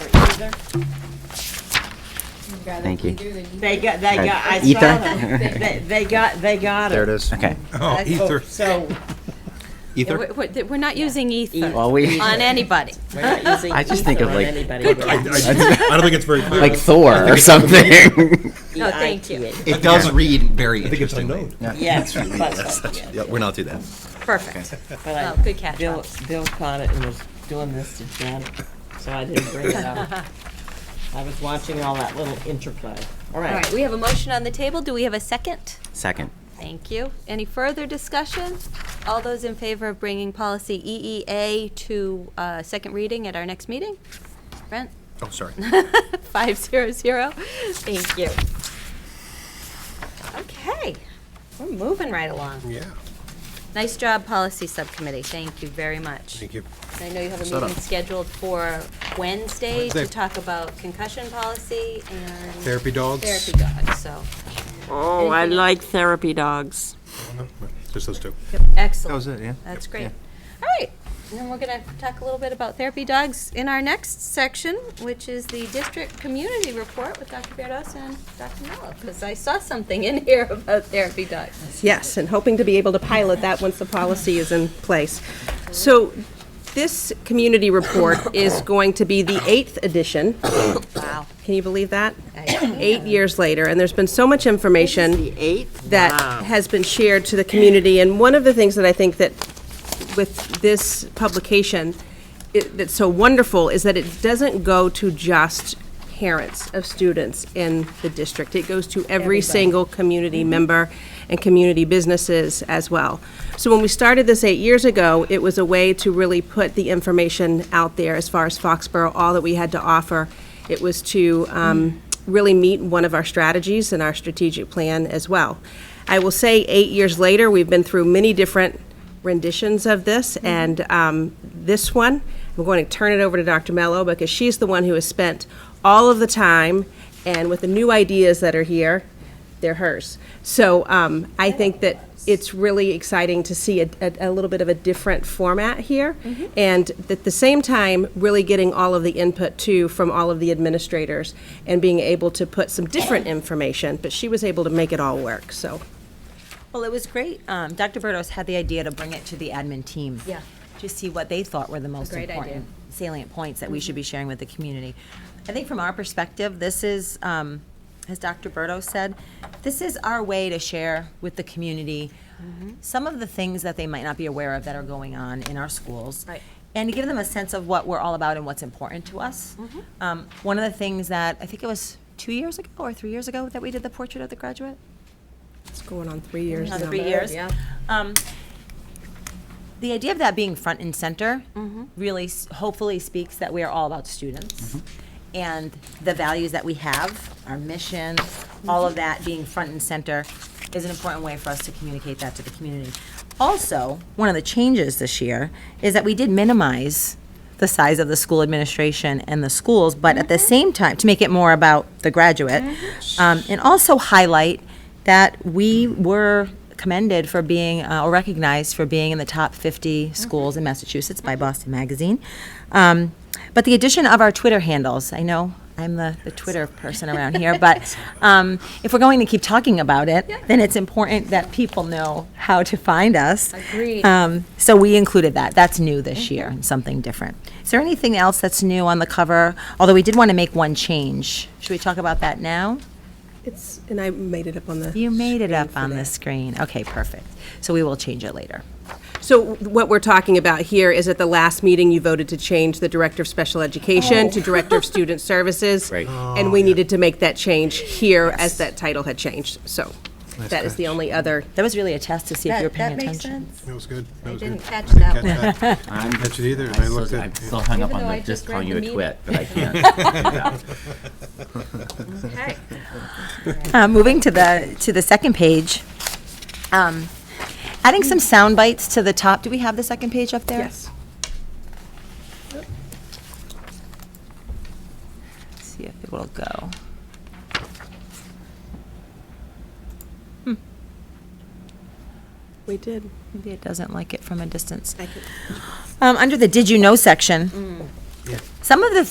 Either. You've got it Thank you. either, then you- They got, they got, I Ether? saw them. They, they got, they got it. There it is. Okay. Oh, ether. So, Ether? We're- We're we're not using ether Well, we- on anybody. we're not using I just think ether of, on like- anybody. I, I- I don't think it's very clear. Like Thor or something. No, thank you. EITA. It does read very I think it's interestingly. unknown. Yes, but, yeah, Yeah, we're not do that. Perfect. but I- Oh, good catch, Bill, Bob. Bill caught it and was doing this to Jen, so I didn't bring it up. I was watching all that little interplay. All All right, right. we have a motion on the table. Do we have a second? Second. Thank you. Any further discussion? All those in favor of bringing policy EEA to uh, second reading at our next meeting? Brent? Oh, sorry. Five zero zero. Thank you. Okay, we're moving right along. Yeah, Nice job, Policy Subcommittee. Thank you very much. thank you. I know you have a Set up. meeting scheduled for Wednesday to Wednesday. talk about concussion policy and Therapy dogs. therapy dogs, so. Oh, I Anything else? like therapy dogs. Just those two. Excellent. That was it, yeah. That's great. All right, and then we're going to talk a little bit about therapy dogs in our next section, which is the district community report with Dr. Berdus and Dr. Mello, because I saw something in here about therapy dogs. yes, and hoping to be able to pilot that once the policy is in place. So this community report is going to be the eighth edition. Wow. Can you believe that? I- Eight years later, and there's been so much information eighth? that has been shared to the community. And one of the things that I think that with this publication i- that's so wonderful is that it doesn't go to just parents of students in the district. It goes to every single community member and community businesses as well. So when we started this eight years ago, it was a way to really put the information out there as far as Foxborough, all that we had to offer. It was to um, really meet one of our strategies and our strategic plan as well. I will say, eight years later, we've been through many different renditions of this, and um, this one, I'm going to turn it over to Dr. Mello because she's the one who has spent all of the time, and with the new ideas that are here, they're hers. So um, I think that it's really exciting to see a, a, a little bit of a different format here, and at the same time, really getting all of the input too from all of the administrators and being able to put some different information. But she was able to make it all work. So Well, it was great. Um, Dr. Burdos had the idea to bring it to the admin team. Yeah. To see what they thought were the most great idea. Mm-hmm. important salient points that we should be sharing with the community. I think from our perspective, this is, um, as Dr. Burdos said, this is our way to share with the community Mm-hmm. some of the things that they might not be aware of that are going on in our schools. Right. And to give them a sense of what we're all about and what's important to us. Mm-hmm. Um, one of the things that, I think it was two years ago or three years ago that we did the portrait of the graduate? it's going on three years on now. three years. Um, the idea of that being front and center really s- hopefully speaks that we are all about students and the values that we have, our mission, all of that being front and center is an important way for us to communicate that to the community. Also, one of the changes this year is that we did minimize the size of the school administration and the schools, but at the same time, to make it more about the graduate, um, and also highlight that we were commended for being, uh, or recognized for being in the top 50 schools in Massachusetts by Boston Magazine. Um, but the addition of our Twitter handles, I know I'm the, the Twitter person around here, but um, if we're going to keep talking about it, then it's important that people know how to find us. Agreed. Um, so we included that. That's new this year and something different. Is there anything else that's new on the cover? Although we did want to make one change. Should we talk about that now? It's and I made it up on the. You made it up for on that. the screen. Okay, perfect. So we will change it later. So what we're talking about here is at the last meeting, you voted to change the Director of Special Education to Director of Student Services. Right. And we needed to make that change here as that title had changed. So that is the only other That was really a test to see if you were paying attention. That was good. That was good. didn't catch I didn't that catch that. I didn't catch it either, and I I'm looked still- I'm at, still hung up Even on though I the just just read calling the you a meeting. twit, but I can't. Okay. Uh, moving to the, to the second page. Um, Adding some sound bites to the top. Do we have the second page up there? Yes. See if it will go. We did. Maybe it doesn't Mm. like it from a distance. Um, under the did you know section, some of the